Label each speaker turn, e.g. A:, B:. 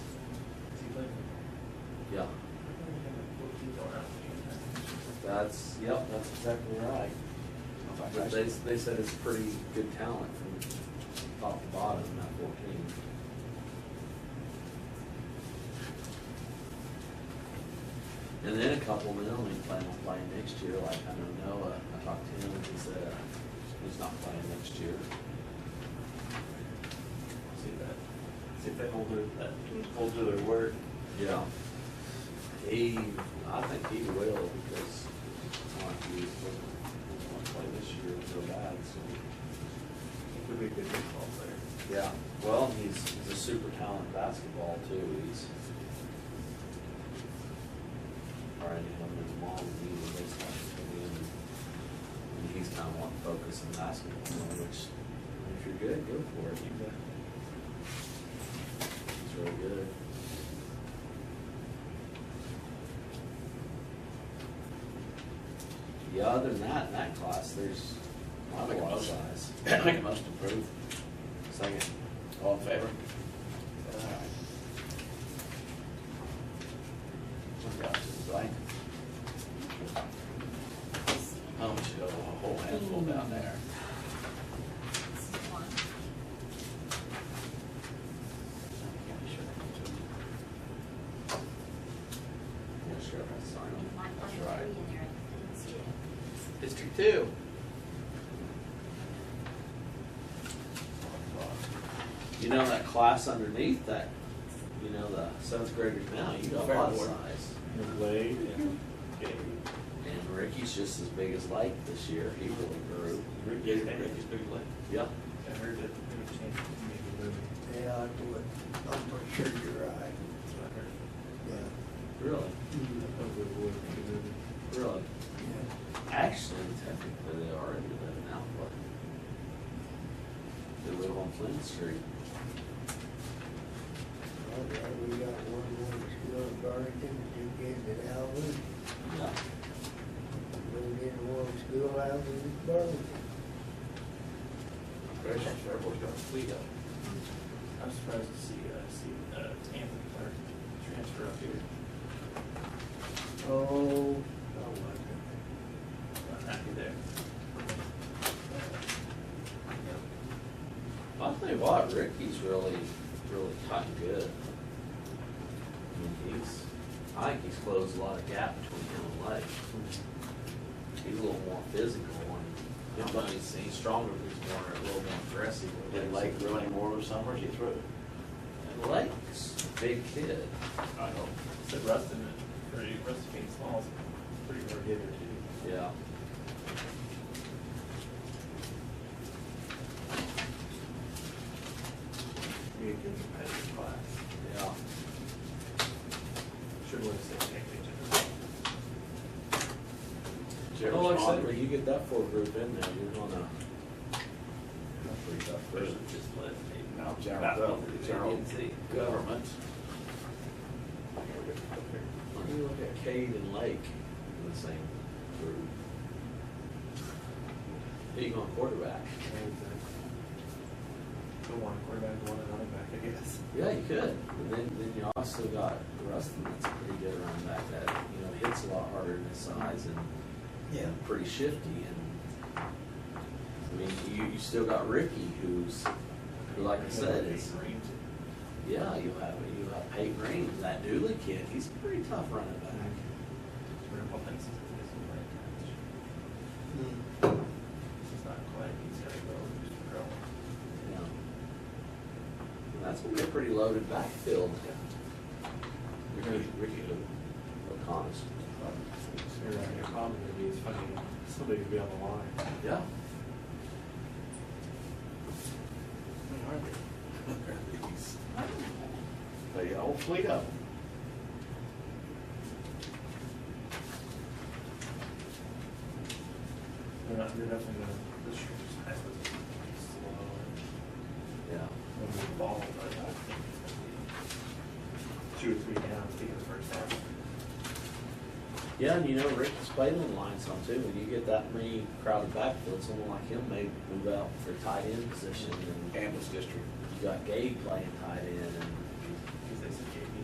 A: Yeah, that's, yep, that's exactly right. But they, they said it's pretty good talent from top to bottom, not fourteen. And then a couple of them only plan on playing next year, like I know Noah, I talked to him, he said, uh, he's not playing next year.
B: See that, see if they hold their, that, hold to uh, their word.
A: Yeah. He, I think he will, because it's not he doesn't want to play this year so bad, so.
B: Would be a good baseball player.
A: Yeah, well, he's, he's a super talented basketball too, he's. Already him and his mom, he was baseball, and he's kind of wanting to focus on basketball, which, if you're good, go for it. He's really good. Yeah, other than that, in that class, there's not a lot of size.
C: Make a motion to approve.
A: Second.
C: All in favor?
B: Uh,
A: Forgot to write.
C: Oh, we should go a whole handful down there.
D: This is one.
A: Yeah, sure, I sign
D: You
A: them.
D: might
C: That's
D: find
C: right.
D: three in there. I didn't see it.
C: District two.
A: You know, that class underneath that, you know, the seventh graders now, you got a lot of
C: Fairboard.
A: size.
B: And Wade and Gabe.
A: And Ricky's just as big as Lake this year, he really grew.
B: Rick,
C: Yeah,
B: yeah,
C: Rick
B: Ricky's
C: is
B: big leg.
A: Yeah.
B: I heard that.
E: Yeah, I would, I'm pretty sure you're right, yeah.
A: Really?
B: That's
A: Really?
E: Yeah.
A: Actually, technically, they already live in Alpha. They live on Flint Street.
E: All right, we got one more school in Burlington, two kids in Alvin,
A: Yeah.
E: we get one school out in Burlington.
C: Congratulations, everyone's got a fleet up.
B: I'm surprised to see, uh, see, uh, Anthony Clark transfer up here.
E: Oh, I wonder.
B: I'm happy there.
A: I tell you what, Ricky's really, really cutting good. I mean, he's, I think he's closed a lot of gap between him and Lake. He's a little more physical and, I know he's, he's stronger, but he's more, a little more aggressive.
C: Did Lake grow any more over summer? Is he through?
A: And Lake's a big kid.
B: Uh, I hope. Said Rustin, and pretty, Rustin being small, is pretty hard hitter too.
A: Yeah.
B: Be a good competitive class.
A: Yeah.
B: Sure would have said Anthony.
A: Well, like Oh, I said, when you get that full group in there, you're gonna. That's pretty tough.
B: Versus just let.
C: Now,
B: Basketball.
C: Gerald, Gerald, government.
A: When you look at Cade and Lake in the same group. Who you going quarterback?
B: Go one quarterback, go one running back, I guess.
A: Yeah, you could, but then, then you also got Rustin that's a pretty good running back that, you know, hits a lot harder than his size and
E: Yeah.
A: pretty shifty and, I mean, you, you still got Ricky who's, who like I said, is,
B: Green.
A: yeah, you have, you have Peyton Green, that Dooley kid, he's a pretty tough running back.
B: Triple fences.
E: Hmm.
B: It's not quite, he's gotta go, just throw.
A: you know. And that's gonna be a pretty loaded backfield. Ricky, Ricky O'Connor's.
B: Sure, your problem would be is fucking, somebody could be on the line. I
A: Yeah.
B: mean, aren't they?
C: They got a whole fleet up.
B: They're not, they're definitely gonna, this year's high school is gonna be slow
A: Yeah.
B: and moving ball, but I think it's gonna be two or three downs, taking the first half.
A: Yeah, and you know, Ricky's played on the line some too. When you get that many crowded backfield, someone like him may move out for tight end position and
C: Ambulance district.
A: you got Gabe playing tight end and